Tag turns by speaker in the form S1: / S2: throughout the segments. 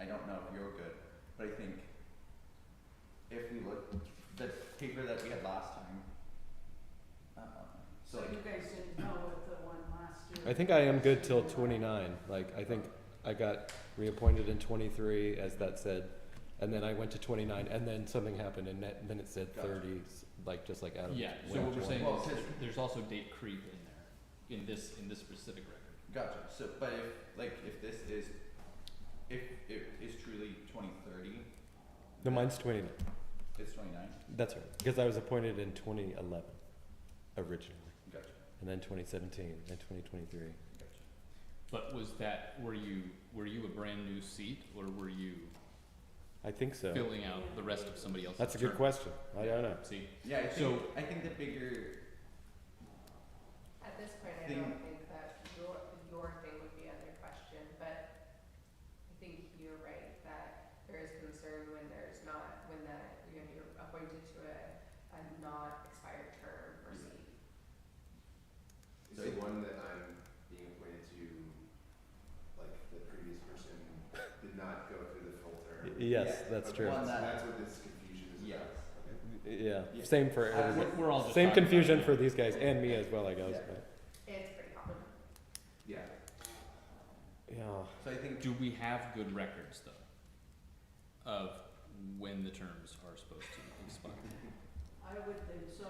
S1: I don't know if you're good, but I think if we look, the paper that we had last time, um, so
S2: So
S1: like,
S2: you guys didn't know what the one last year.
S3: I think I am good till twenty-nine, like, I think I got reappointed in twenty-three, as that said, and then I went to twenty-nine, and then something happened, and that- then it said
S1: Gotcha.
S3: thirty, s- like, just like Adam.
S4: Yeah, so
S3: went
S4: what we're
S3: 20.
S4: saying
S1: Well,
S4: is,
S1: since-
S4: there's also date creep in there, in this, in this specific record.
S1: Gotcha. So, but if like if this is, if it is truly 2030,
S3: No, mine's twenty-nine,
S1: it's 29.
S3: that's right, because I was appointed in twenty-eleven originally,
S1: Gotcha.
S3: and then twenty-seventeen, and twenty-twenty-three.
S1: Gotcha.
S4: But was that, were you, were you a brand new seat, or were you
S3: I think so,
S4: filling out the rest of somebody else's term?
S3: that's a good question, I don't know.
S4: See,
S1: Yeah. I think,
S4: So-
S1: I think the bigger
S5: At this point, I
S1: Thing-
S5: don't think that your, your thing would be under question, but I think you're right that there is concern when there's not, when the, you know, you're appointed to a, a non-expired term or
S1: Yeah.
S5: seat.
S6: Is the one that I'm being appointed to, like, the previous person did not go through the full
S3: Y-
S6: term?
S3: Yes,
S1: Yeah,
S3: that's
S6: Okay,
S3: true,
S1: One
S6: So
S1: that-
S6: that's what this confusion is
S1: yes.
S6: about. Okay.
S3: yeah,
S1: Yeah.
S3: same for
S1: Uh,
S3: everybody.
S4: we're, we're all just
S3: Same
S4: talking about
S3: confusion
S4: it.
S3: for these guys and me as well, I guess.
S1: Yeah.
S3: But,
S5: It's pretty common.
S6: Yeah,
S3: yeah.
S1: So I think
S4: Do we have good records though, of when the terms are supposed to expire?
S2: I would think so.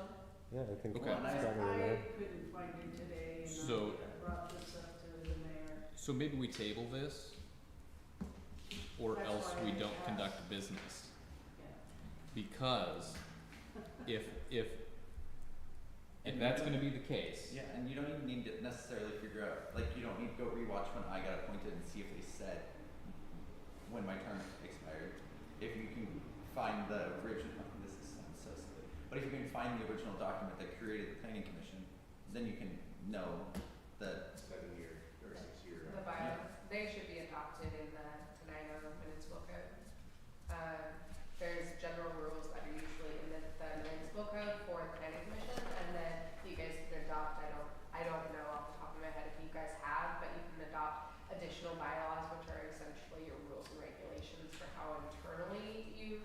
S3: Yeah, I think
S4: Okay.
S3: it's probably
S2: I
S3: right.
S2: couldn't find it today and
S4: So-
S2: I brought this up to the mayor.
S4: So maybe we table this, or
S2: That's
S4: else
S2: why
S4: we
S2: I
S4: don't
S2: asked.
S4: conduct business.
S2: Yeah.
S4: Because if, if, if
S1: And
S4: that's
S1: you-
S4: gonna be the case,
S1: yeah, and you don't even need to necessarily figure out like you don't need to go rewatch when I got appointed and see if they said when my term expired. If you can find the original, oh, this is sounds so silly, but if you can find the original document that created the planning commission, then you can know that
S6: seven year or six year.
S5: The bylaws, they should be adopted in the Tenino Municipal Code. Um, there's general rules that are usually in the, the municipal code for the planning commission, and then you guys can adopt, I don't, I don't know off the top of my head if you guys have, but you can adopt additional bylaws, which are essentially your rules and regulations for how internally you,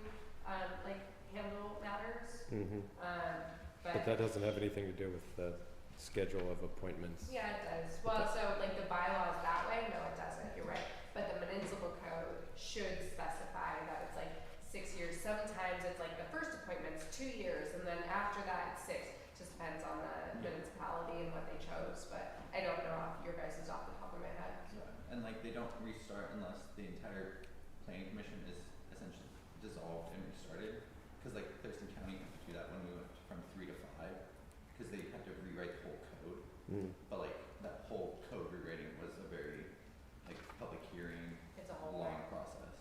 S5: um, like, handle matters.
S3: hmm
S5: Um,
S3: But that doesn't have anything to do with the schedule of appointments.
S5: yeah, it does. Well, so like the bylaws that way, no, it doesn't, you're right. But the municipal code should specify that it's like six years. Sometimes it's like the first appointment's two years and then after that it's six. Just depends on the
S1: Yeah.
S5: municipality and what they chose, but I don't know off your guys' off the top of my head.
S1: Yeah, and like they don't restart unless the entire planning commission is essentially dissolved and restarted. Cause like Thurston County had to do that when we went from three to five, cause they had to rewrite the whole code.
S3: Mm.
S1: But like that whole code rewriting was a very like public hearing,
S5: It's a whole
S1: long
S5: lot.
S1: process.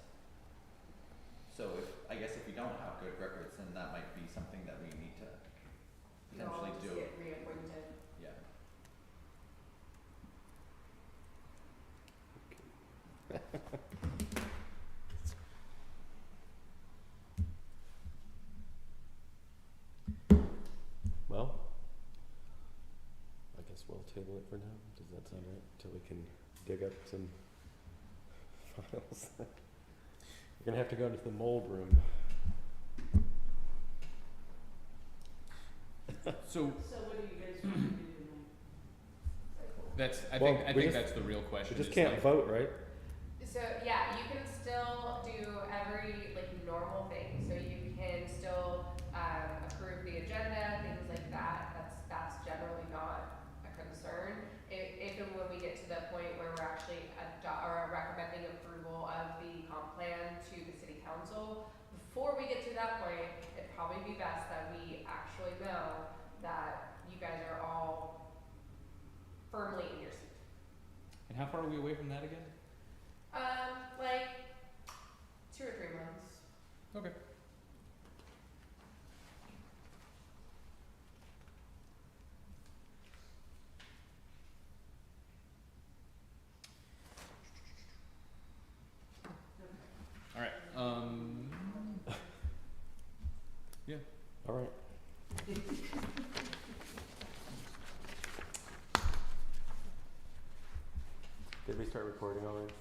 S1: So if, I guess if we don't have good records, then that might be something that we need to
S5: They'll all
S1: potentially do,
S5: just get reappointed.
S1: yeah.
S3: Well, I guess we'll table it for now. Does that sound right? Till we can dig up some files. We're gonna have to go to the mold room.
S4: so
S2: So what do you guys want to do tonight?
S4: that's, I
S3: Well,
S4: think, I
S3: we
S4: think
S3: just-
S4: that's the real question.
S3: We just
S4: is
S3: can't
S4: like-
S3: vote, right?
S5: So yeah, you can still do every like normal thing. So you can still um, approve the agenda, things like that. That's that's generally not a concern. If, if and when we get to the point where we're actually ado- or recommending approval of the comp plan to the city council, before we get to that point, it'd probably be best that we actually know that you guys are all firmly in your seat.
S4: And how far are we away from that again?
S5: Um, like two or three months.
S4: Okay. Alright, um,
S3: All right. Did we start recording already?